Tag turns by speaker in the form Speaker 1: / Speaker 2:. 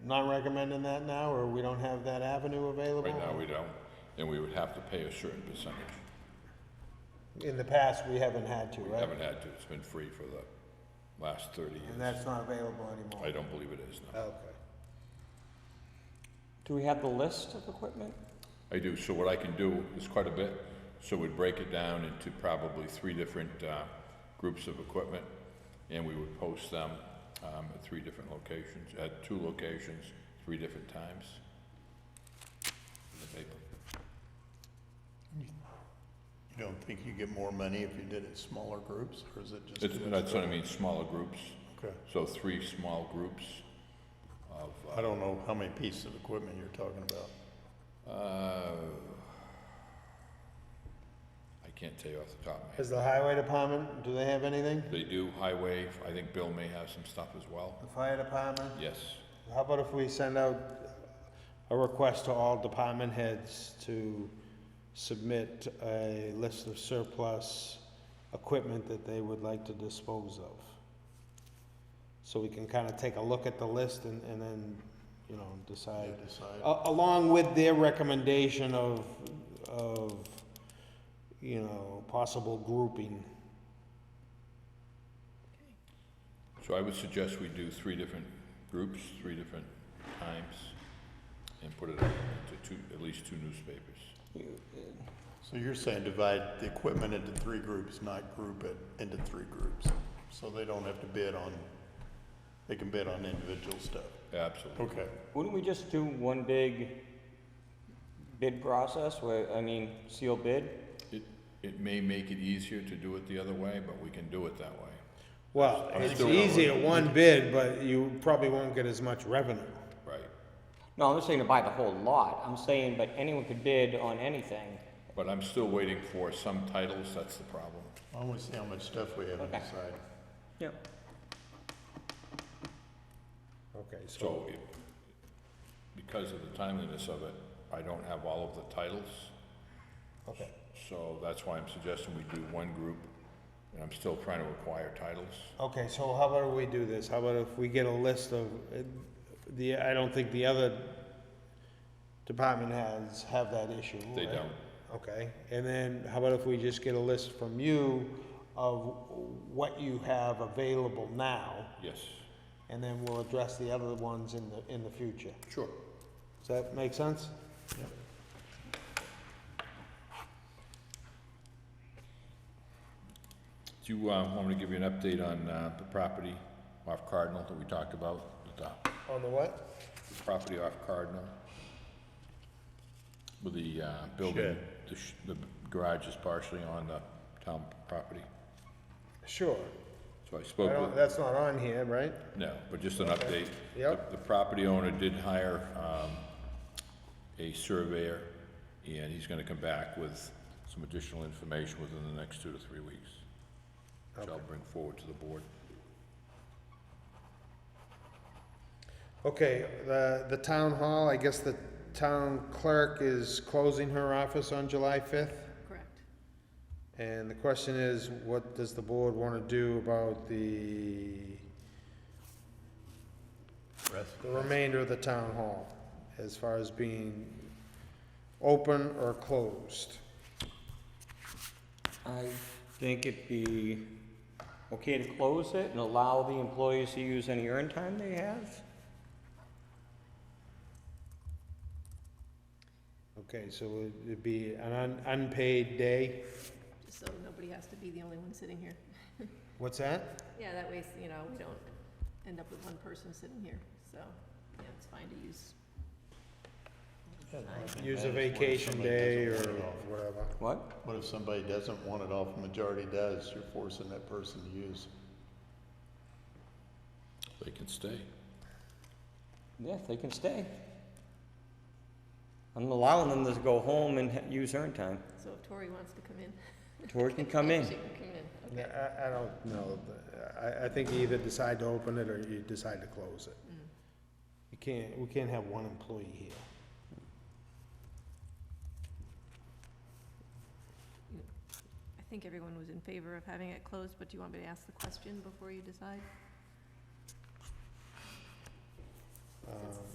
Speaker 1: not recommending that now, or we don't have that avenue available?
Speaker 2: Right now, we don't, and we would have to pay a certain percentage.
Speaker 1: In the past, we haven't had to,
Speaker 2: We
Speaker 1: right?
Speaker 2: haven't had to, it's been free for the last thirty
Speaker 1: And
Speaker 2: years.
Speaker 1: that's not available anymore?
Speaker 2: I don't believe it is, no.
Speaker 1: Okay.
Speaker 3: Do we have the list of equipment?
Speaker 2: I do, so what I can do is quite a bit, so we'd break it down into probably three different, uh, groups of equipment, and we would post them, um, at three different locations, at two locations, three different times. In the paper.
Speaker 4: You don't think you get more money if you did it in smaller groups, or is it just?
Speaker 2: It's,
Speaker 4: too much
Speaker 2: that's what I
Speaker 4: work?
Speaker 2: mean, smaller groups,
Speaker 4: Okay.
Speaker 2: so three small groups of, uh,
Speaker 4: I don't know how many pieces of equipment you're talking about.
Speaker 2: Uh, I can't tell you off the top of my head.
Speaker 1: Is the highway department, do they have anything?
Speaker 2: They do highway, I think Bill may have some stuff as well.
Speaker 1: The fire department?
Speaker 2: Yes,
Speaker 1: How about if we send out a request to all department heads to submit a list of surplus equipment that they would like to dispose of? So we can kind of take a look at the list and, and then, you know,
Speaker 4: I
Speaker 1: decide.
Speaker 4: decide.
Speaker 1: A- Along with their recommendation of, of, you know, possible grouping.
Speaker 2: so I would suggest we do three different groups, three different times, and put it out into two, at least two newspapers.
Speaker 4: So you're saying divide the equipment into three groups, not group it into three groups, so they don't have to bid on, they can bid on individual stuff.
Speaker 2: Absolutely.
Speaker 4: Okay.
Speaker 3: Wouldn't we just do one big bid process where, I mean, seal bid?
Speaker 2: It, it may make it easier to do it the other way, but we can do it that way.
Speaker 1: Well,
Speaker 2: I'm
Speaker 1: it's
Speaker 2: still gonna
Speaker 1: easy at one bid, but you probably won't get as much revenue.
Speaker 2: Right.
Speaker 3: No, I'm not saying to buy the whole lot. I'm saying, but anyone could bid on anything.
Speaker 2: But I'm still waiting for some titles, that's the problem.
Speaker 4: I want to see how much stuff we have on
Speaker 3: Okay.
Speaker 4: the side.
Speaker 3: Yep.
Speaker 1: Okay, so
Speaker 2: So, it- because of the timeliness of it, I don't have all of the titles.
Speaker 1: Okay.
Speaker 2: So that's why I'm suggesting we do one group, and I'm still trying to acquire titles.
Speaker 1: Okay, so how about we do this? How about if we get a list of, uh, the, I don't think the other department has, have that issue.
Speaker 2: They
Speaker 1: right?
Speaker 2: don't.
Speaker 1: Okay, and then how about if we just get a list from you of what you have available now?
Speaker 2: Yes.
Speaker 1: And then we'll address the other ones in the, in the future.
Speaker 2: Sure.
Speaker 1: Does that make sense?
Speaker 2: Do you uh, want me to give you an update on uh, the property off Cardinal that we talked about? The
Speaker 1: On the what?
Speaker 2: the property off Cardinal? With the uh, building,
Speaker 4: Shed.
Speaker 2: the sh- the garage is partially on the town property.
Speaker 1: Sure.
Speaker 2: So I
Speaker 1: I
Speaker 2: spoke with.
Speaker 1: don't, that's not on here, right?
Speaker 2: No, but just an update.
Speaker 1: Yep.
Speaker 2: The the property owner did hire um, a surveyor, and he's gonna come back with some additional information within the next two to three weeks, which I'll bring forward to the board.
Speaker 1: Okay, the, the town hall, I guess the town clerk is closing her office on July fifth?
Speaker 5: Correct.
Speaker 1: And the question is, what does the board want to do about the,
Speaker 4: Rest.
Speaker 1: the remainder of the town hall as far as being open or closed?
Speaker 3: I think it'd be okay to close it and allow the employees to use any earn time they have.
Speaker 1: Okay, so it'd be an un- unpaid day?
Speaker 5: Just so nobody has to be the only one sitting here.
Speaker 1: What's that?
Speaker 5: Yeah, that way, you know, we don't end up with one person sitting here, so, yeah, it's fine to use.
Speaker 1: Use a vacation day or whatever.
Speaker 3: What?
Speaker 4: What if somebody doesn't want it off, majority does, you're forcing that person to use?
Speaker 2: They can stay.
Speaker 3: Yeah, they can stay. I'm allowing them to go home and ha- use earn time.
Speaker 5: So if Tori wants to come in.
Speaker 3: Tori can come in.
Speaker 5: She can come in,
Speaker 1: Yeah,
Speaker 5: okay.
Speaker 1: I, I don't know. I, I think you either decide to open it or you decide to close it.
Speaker 5: Mm.
Speaker 1: You can't, we can't have one employee here.
Speaker 5: I think everyone was in favor of having it closed, but do you want me to ask the question before you decide?
Speaker 1: Um,